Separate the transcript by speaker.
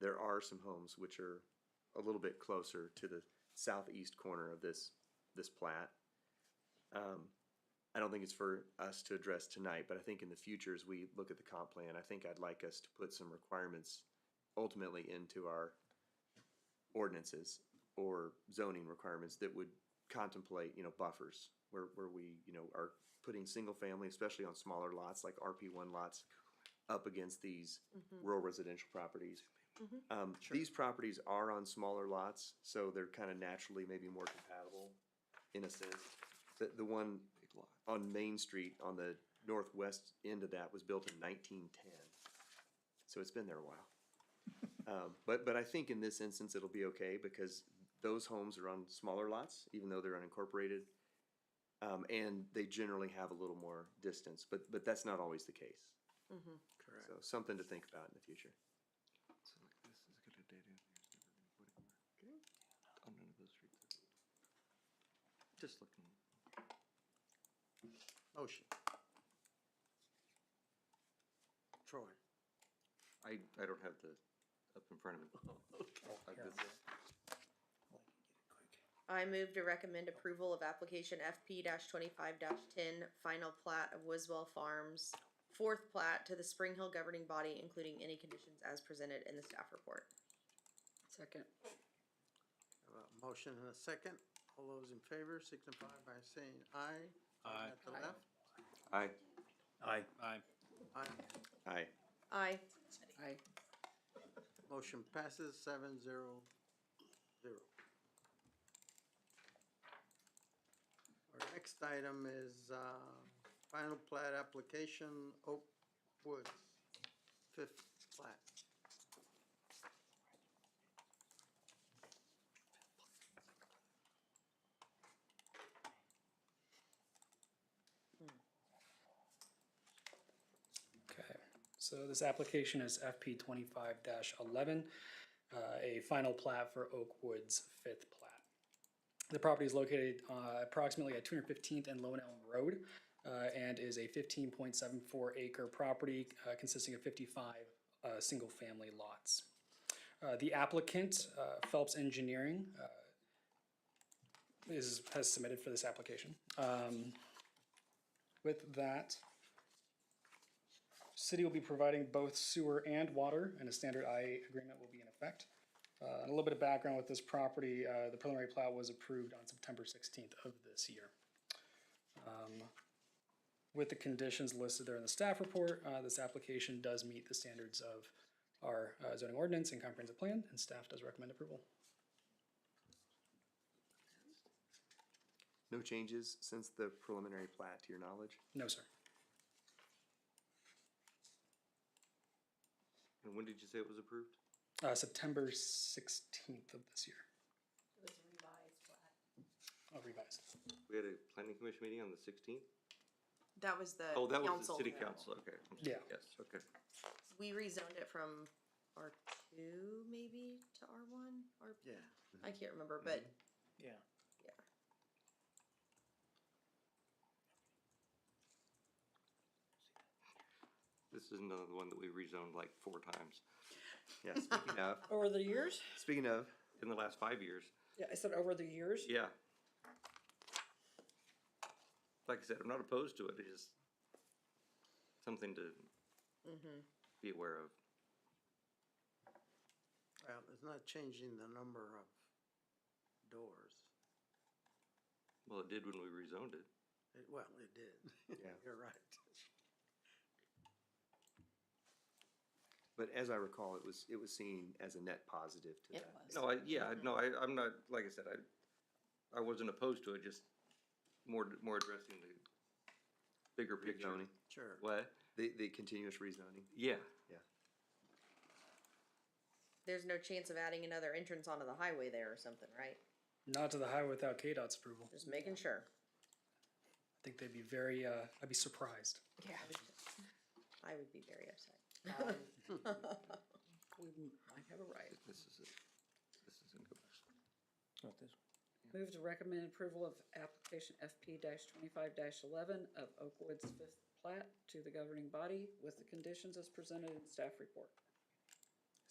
Speaker 1: there are some homes which are a little bit closer to the southeast corner of this, this plat. Um, I don't think it's for us to address tonight, but I think in the future, as we look at the comp plan, I think I'd like us to put some requirements ultimately into our ordinances or zoning requirements that would contemplate, you know, buffers where, where we, you know, are putting single family, especially on smaller lots like RP one lots up against these
Speaker 2: Mm-hmm,
Speaker 1: rural residential properties.
Speaker 2: Mhm.
Speaker 1: Um, these properties are on smaller lots, so they're kind of naturally maybe more compatible in a sense. The, the one on Main Street on the northwest end of that was built in nineteen ten. So it's been there a while. Um, but, but I think in this instance, it'll be okay because those homes are on smaller lots, even though they're unincorporated. Um, and they generally have a little more distance, but, but that's not always the case.
Speaker 2: mm-hmm.
Speaker 1: So something to think about in the future.
Speaker 3: Just looking.
Speaker 4: Motion. Troy.
Speaker 3: I, I don't have the, up in front of me.
Speaker 1: Oh,
Speaker 3: I did that.
Speaker 2: I move to recommend approval of application FP twenty-five ten, final plat of Wiswell Farms, fourth plat to the Spring Hill governing body, including any conditions as presented in the staff report.
Speaker 5: Second.
Speaker 4: Have a Motion and a second. All those in favor signify by saying aye. Aye. At the
Speaker 5: Aye.
Speaker 4: left.
Speaker 3: Aye.
Speaker 6: Aye. Aye.
Speaker 4: Aye.
Speaker 1: Aye.
Speaker 2: Aye.
Speaker 5: Aye.
Speaker 4: Motion passes seven zero zero. Our next item is, uh, final plat application, Oak Woods, fifth plat.
Speaker 7: Okay, so this application is FP twenty-five eleven, uh, a final plat for Oak Woods fifth plat. The property is located, uh, approximately at two hundred fifteenth and Lone Elm Road, uh, and is a fifteen point seven four acre property, uh, consisting of fifty-five, uh, single-family lots. Uh, the applicant, uh, Phelps Engineering, uh, is, has submitted for this application. Um, with that, City will be providing both sewer and water, and a standard IA agreement will be in effect. Uh, and a little bit of background with this property, uh, the preliminary plat was approved on September sixteenth of this year. Um, With the conditions listed there in the staff report, uh, this application does meet the standards of our uh, zoning ordinance and comprehensive plan, and staff does recommend approval.
Speaker 1: No changes since the preliminary plat, to your knowledge?
Speaker 7: No, sir.
Speaker 3: And when did you say it was approved?
Speaker 7: Uh, September sixteenth of this year. It was revised plat.
Speaker 3: We had a planning commission meeting on the sixteenth?
Speaker 2: That was the
Speaker 3: Oh, that was the city council, okay. I'm sorry.
Speaker 7: Yeah.
Speaker 3: Yes, okay.
Speaker 2: We rezoned it from R two maybe to R one, or,
Speaker 4: Yeah.
Speaker 2: I can't remember, but
Speaker 6: Yeah.
Speaker 3: This is another one that we rezoned like four times
Speaker 1: Yeah, speaking of,
Speaker 5: Over the years?
Speaker 1: speaking of,
Speaker 3: in the last five years.
Speaker 5: Yeah, I said over the years?
Speaker 3: Yeah. Like I said, I'm not opposed to it, it's just something to
Speaker 2: mm-hmm.
Speaker 3: be aware of.
Speaker 4: Well, it's not changing the number of doors.
Speaker 3: Well, it did when we rezoned it.
Speaker 4: It- Well, it did.
Speaker 1: Yeah.
Speaker 4: You're right.
Speaker 1: but as I recall, it was, it was seen as a net positive to
Speaker 5: It
Speaker 1: that.
Speaker 5: was.
Speaker 3: No, I, yeah, I- no, I, I'm not, like I said, I, I wasn't opposed to it, just more, more addressing the bigger picture.
Speaker 1: Rezoning,
Speaker 4: Sure.
Speaker 3: What?
Speaker 1: the, the continuous rezoning.
Speaker 3: Yeah,
Speaker 2: there's no chance of adding another entrance onto the highway there or something, right?
Speaker 7: Not to the highway without KDOT's approval.
Speaker 2: Just making sure.
Speaker 7: I think they'd be very, uh, I'd be surprised.
Speaker 2: Yeah. I would be very upset. Um,
Speaker 5: We might have a right.
Speaker 3: this is it. This is in
Speaker 6: Not this
Speaker 5: Move to recommend approval of application FP twenty-five eleven of Oakwoods fifth plat to the governing body with the conditions as presented in staff report.